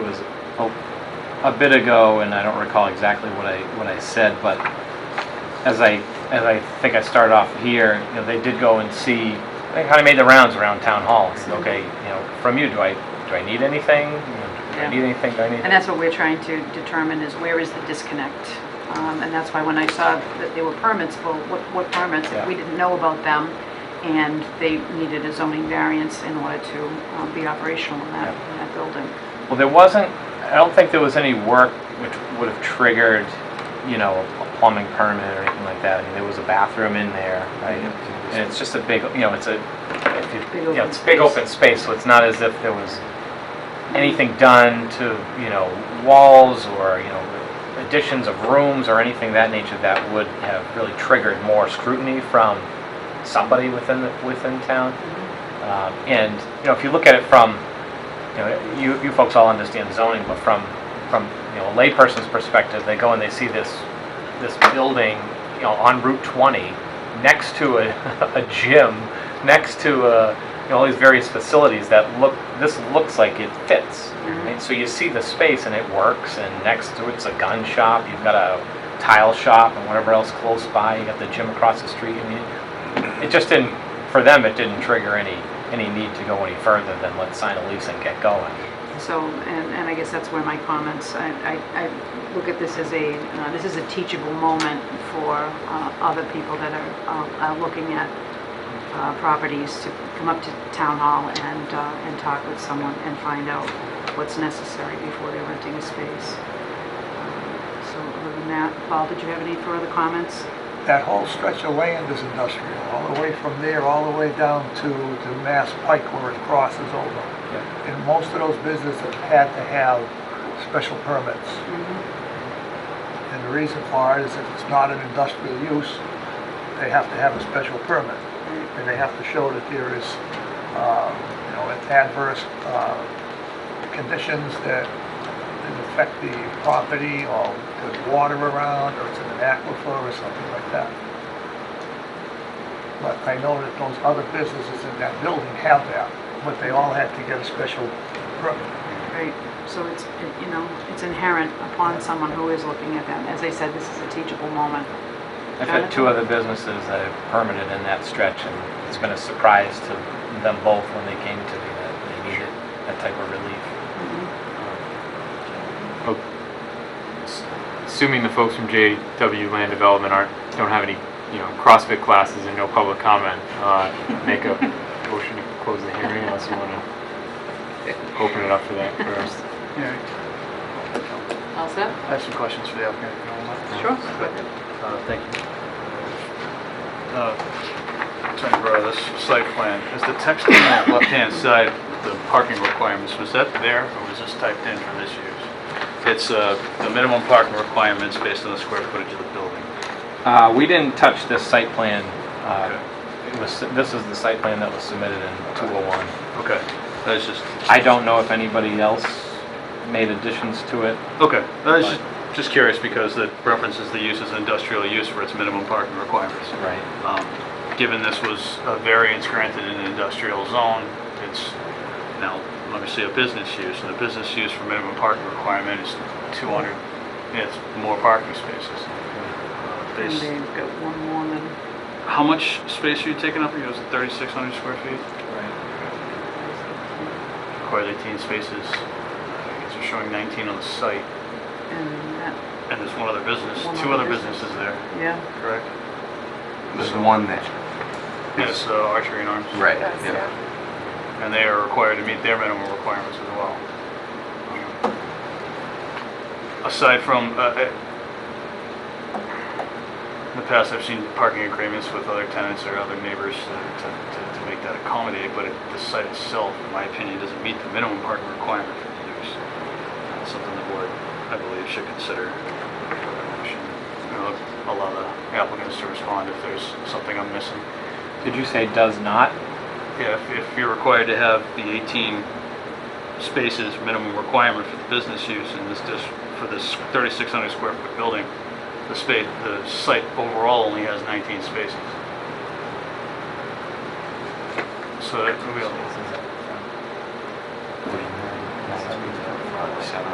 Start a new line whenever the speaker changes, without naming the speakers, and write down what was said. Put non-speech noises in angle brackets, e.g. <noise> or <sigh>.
a- a bit ago, and I don't recall exactly what I, what I said, but as I, as I think I started off here, you know, they did go and see, they kind of made the rounds around town hall. and
Mm-hmm.
said, Okay, you know, from you, do I, do I need anything? You know, Do I
Yeah.
need anything? Do I need?
And that's what we're trying to determine is where is the disconnect? Um, And that's why when I saw that there were permits, well, what, what permits?
Yeah.
We didn't know about them and they needed a zoning variance in order to um, be operational in that, in that building.
Well, there wasn't, I don't think there was any work which would have triggered, you know, a plumbing permit or anything like that. I mean, there was a bathroom in there, right? And it's just a big, you know, it's a, if you- you
Big
know,
open
it's a big
space.
open space, so it's not as if there was anything done to, you know, walls or, you know, additions of rooms or anything of that nature that would have really triggered more scrutiny from somebody within, the within town.
Mm-hmm.
Um, And, you know, if you look at it from, you know, you, you folks all understand zoning, but from, from, you know, a layperson's perspective, they go and they see this, this building, you know, on Route 20, next to a, <laughs> a gym, next to, uh, you know, all these various facilities that look, this looks like it fits.
Mhm.
And so you see the space and it works, and next to it's a gun shop, you've got a tile shop and whatever else close by, you got the gym across the street, I mean, it just didn't, for them, it didn't trigger any, any need to go any further than let's sign a lease and get going.
So, and, and I guess that's where my comments, I, I, I look at this as a, uh, this is a teachable moment for, uh, other people that are, uh, are looking at, uh, properties to come up to town hall and, uh, and talk with someone and find out what's necessary before they're renting a space. Um, So other than that, Paul, did you have any further comments?
That whole stretch of land is industrial, all the way from there, all the way down to, to Mass Pike where it crosses over. And most of those businesses had to have special permits. And the reason for it is if it's not an industrial use, they have to have a special permit. And they have to show that there is, uh, you know, adverse uh, conditions that that affect the property or there's water around or it's in an aquifer or something like that. But I know that those other businesses in that building have that, but they all had to get a special permit.
Right, so it's, it- you know, it's inherent upon someone who is looking at them. As I said, this is a teachable moment.
I've had two other businesses that have permitted in that stretch, and it's been a surprise to them both when they came to me that they needed that type of relief.
Mm-hmm. Um, assuming the folks from JW Land Development aren't, don't have any, you know, CrossFit classes and no public comment, uh, make a motion to close the hearing unless you want to open it up for that first.
All set?
I have some questions for the applicant. if you don't mind.
Sure.
Uh, Thank you. Uh, Attorney Guerrero, this site plan, is the text on the left-hand side, the parking requirements, was that there or was this typed in for this use? It's uh, the minimum parking requirements based on the square footage of the building.
Uh, we didn't touch this site plan,
Okay.
uh, it was, this is the site plan that was submitted in 201.
Okay, that's just,
I don't know if anybody else made additions to it.
okay, I was just- just curious because it references the use as industrial use for its minimum parking requirements.
Right.
Um, Given this was a variance granted in an industrial zone, it's now, let me see, a business use, and the business use for minimum parking requirement is 200, yeah, it's more parking spaces. Uh,
And
based-
they've got one more than,
How much space are you taking up? You know, is it 3,600 square feet? Requires 18 spaces. I guess You're showing 19 on the site,
and that,
and there's one other business,
One
two
other
other
business.
businesses there,
yeah.
correct?
This is one that,
Yes, uh, Archery and Arms.
right, yeah.
And they are required to meet their minimum requirements as well. Aside from, uh, I- in the past, I've seen parking agreements with other tenants or other neighbors uh, to, to, to make that accommodated, but it- the site itself, in my opinion, doesn't meet the minimum parking requirement for the use. That's Something the board, I believe, should consider. You know, Allow the applicants to respond if there's something I'm missing.
Did you say does not?
Yeah, if, if you're required to have the 18 spaces minimum requirement for the business use in this, dis- for this 3,600 square foot building, the space, the site overall only has 19 spaces. So that, we-